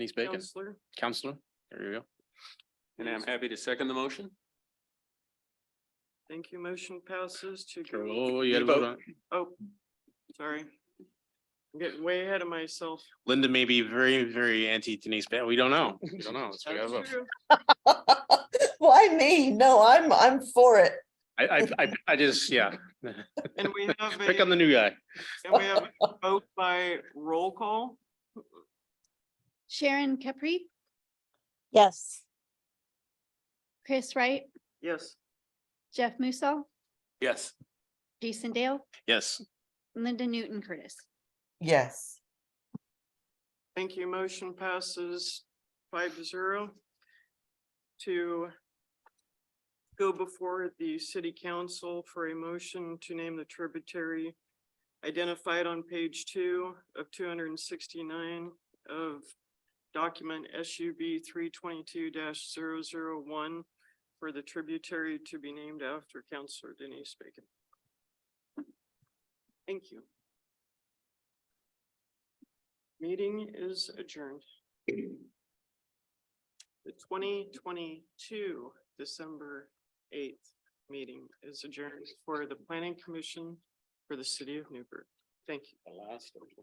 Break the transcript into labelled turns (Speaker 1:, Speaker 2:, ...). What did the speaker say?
Speaker 1: Denise Bacon,
Speaker 2: Counselor,
Speaker 1: counselor. There you go.
Speaker 3: And I'm happy to second the motion.
Speaker 2: thank you. Motion passes to go.
Speaker 1: Oh, you gotta vote on. it.
Speaker 2: Oh, sorry. I'm Getting way ahead of myself.
Speaker 1: Linda may be very, very anti Denise Bacon. We don't know. We don't know. So we gotta
Speaker 2: That's
Speaker 1: vote.
Speaker 2: true.
Speaker 4: Why me? No, I'm, I'm for it.
Speaker 1: I, I, I, I just, yeah,
Speaker 2: And we have a,
Speaker 1: pick on the new guy.
Speaker 2: and we have a vote by roll call.
Speaker 5: Sharon Capri,
Speaker 4: Yes.
Speaker 5: Chris Wright,
Speaker 2: Yes,
Speaker 5: Jeff Musall,
Speaker 3: Yes.
Speaker 5: Jason Dale,
Speaker 1: Yes,
Speaker 5: Linda Newton Curtis.
Speaker 4: Yes.
Speaker 2: thank you. Motion passes five to zero to go before the city council for a motion to name the tributary identified on page two of two hundred and sixty-nine of document SUB three twenty-two one for the tributary to be named after Counselor Denise Bacon. Thank you. Meeting is adjourned. The twenty twenty-two December eighth meeting is adjourned for the planning commission for the city of Newburgh. Thank you.